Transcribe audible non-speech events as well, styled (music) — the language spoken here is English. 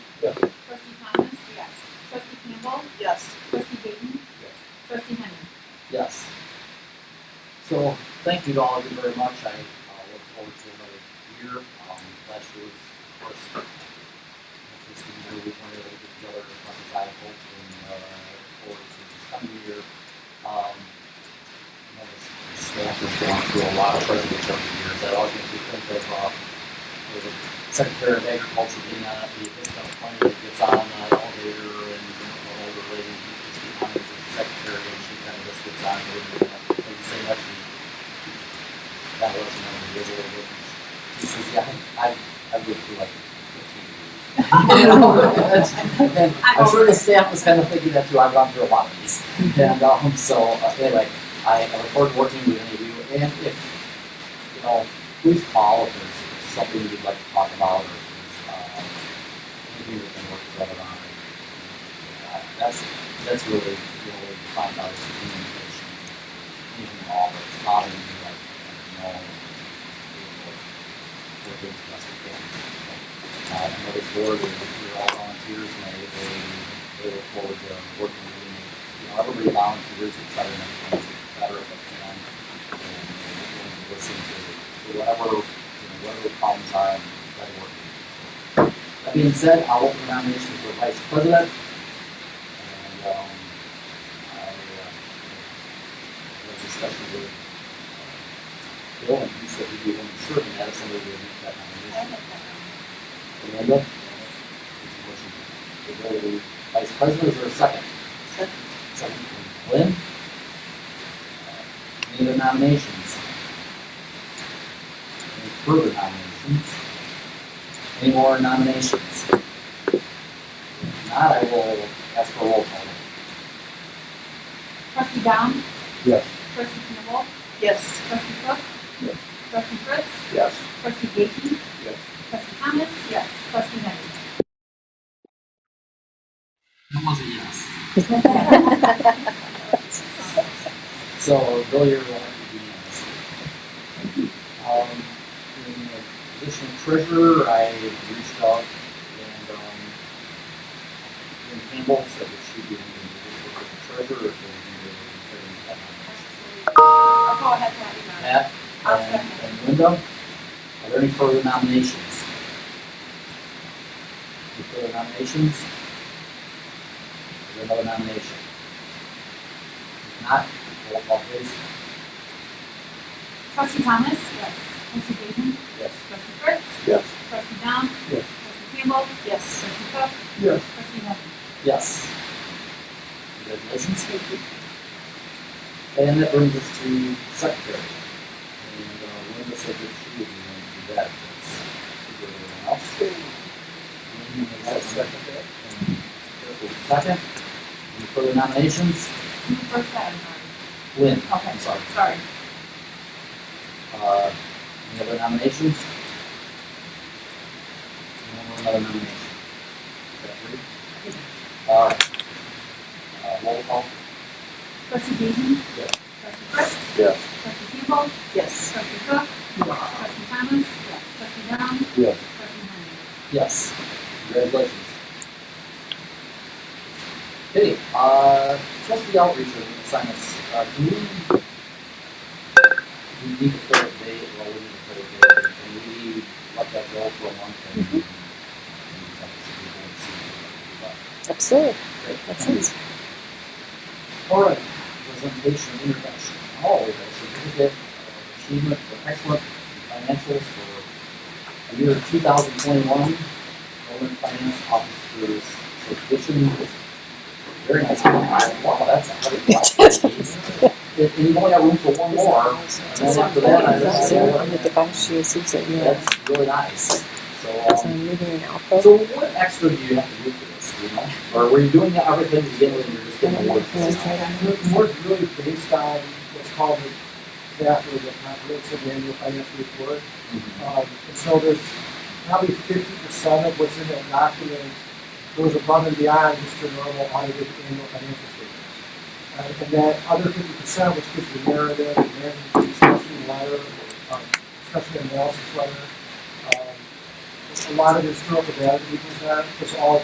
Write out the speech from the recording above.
Yes. Trustee Gaten. Trustee Henry. Yes. So, thank you to all of you very much, I uh, look forward to another year, um, last year was, of course, interesting year, we weren't able to get together as much as I hoped, and, uh, look forward to this coming year. Um, you know, this this staff has gone through a lot of presidents over the years, I always make you think of, uh, the Secretary of Agriculture being on the, the plane that gets on the elevator and, you know, the older lady, who's behind the secretary, and she kind of just gets on, and, uh, like you say, that she, that was, you know, it was a little bit, she says, yeah, I, I lived through like fifteen years. You know, that's- and I'm sure the staff was kind of thinking that too, I've gone through a lot of these, and, um, so, uh, anyway, I, I look forward to working with any of you, and if, you know, please call if there's something you'd like to talk about or if there's, uh, anything we can work together on. Uh, That's, that's really, you know, what we find out is communication, even all that's bothering you, like, you know, we're doing the best we can. Uh, I know this board, we're we're all volunteers, and they, they, they look forward to working with you. You know, everybody volunteers, and try to make things better if they can and listen to whatever, you know, whatever the problems are and try to work. with it. That being said, I'll open the nomination for vice president. And, um, I, uh, had a discussion with uh, Bill, and he said he'd be willing to serve, and that is somebody who would make that nomination. Amanda? Is the motion to go to vice president, is there a second? Second. Second from Lynn. Any other nominations? Any further nominations? Any more nominations? If not, I will ask for a roll call. Trustee Dom. Yes. Trustee Knebel. Yes. Trustee Cook. Yes. Trustee Fritz. Yes. Trustee Gaten. Yes. Trustee Thomas. Yes. Trustee Henry. Who was a yes? So, Bill, you're one of the unanimous. Um, in the position of treasurer, I reached out and, um, Lynn Campbell said that she'd be in the treasurer if they I'll go ahead and have you on. Pat I'll and second. and Linda. Are there any further nominations? Any further nominations? Is there another nomination? If not, roll call please. Trustee Thomas. Yes. Trustee Gaten. Yes. Trustee Fritz. Yes. Trustee Dom. Yes. Trustee Campbell. Yes. Trustee Cook. Yes. Trustee Henry. Yes. Congratulations. And that brings us to secretary. And uh, Linda said that she would want to do that. That's good. Anyone else? second And Carol is Second. Any further nominations? You first had it Lynn, on. Okay, I'm sorry. sorry. Uh, any other nominations? No other nomination? Is that three? All right. Uh, roll call. Trustee Gaten. Yes. Trustee Fritz. Yes. Trustee Campbell. Yes. Trustee Cook. Trustee Thomas. Yes. Trustee Dom. Yes. Trustee Henry. Yes. Congratulations. Okay, uh, trustee outreach and assignments, uh, do we? We need to fill a date, well, we need to fill a date, can we let that go for a month? and- and tell us if we want to see what Absolutely, we do? that sounds. All right, presentation introduction, all of us, certificate of uh, achievement for excellent financials for the year two thousand twenty-one, Northern Finance Officers Association. Very nice, wow, that's a hundred (laughs) bucks. If you only have room for one more, and then after that, I just say, So, well, Mit dabei, she sieht ja hier, that's really nice, so. also um, living in Alpha. So what extra do you have to do for this, you know, or were you doing everything to begin with, and you're just And getting I'm awards? like, no, it's right on. And the board's really based on what's called the DAFR, the comprehensive annual financial report. Mhm. Um, and so there's probably fifty percent of what's in that document goes above and beyond just your normal audited annual financial statements. Uh, and that other fifty percent, which gives the narrative, the management discussion letter, um, discussion analysis letter, um, a lot of the historical data that we present, is all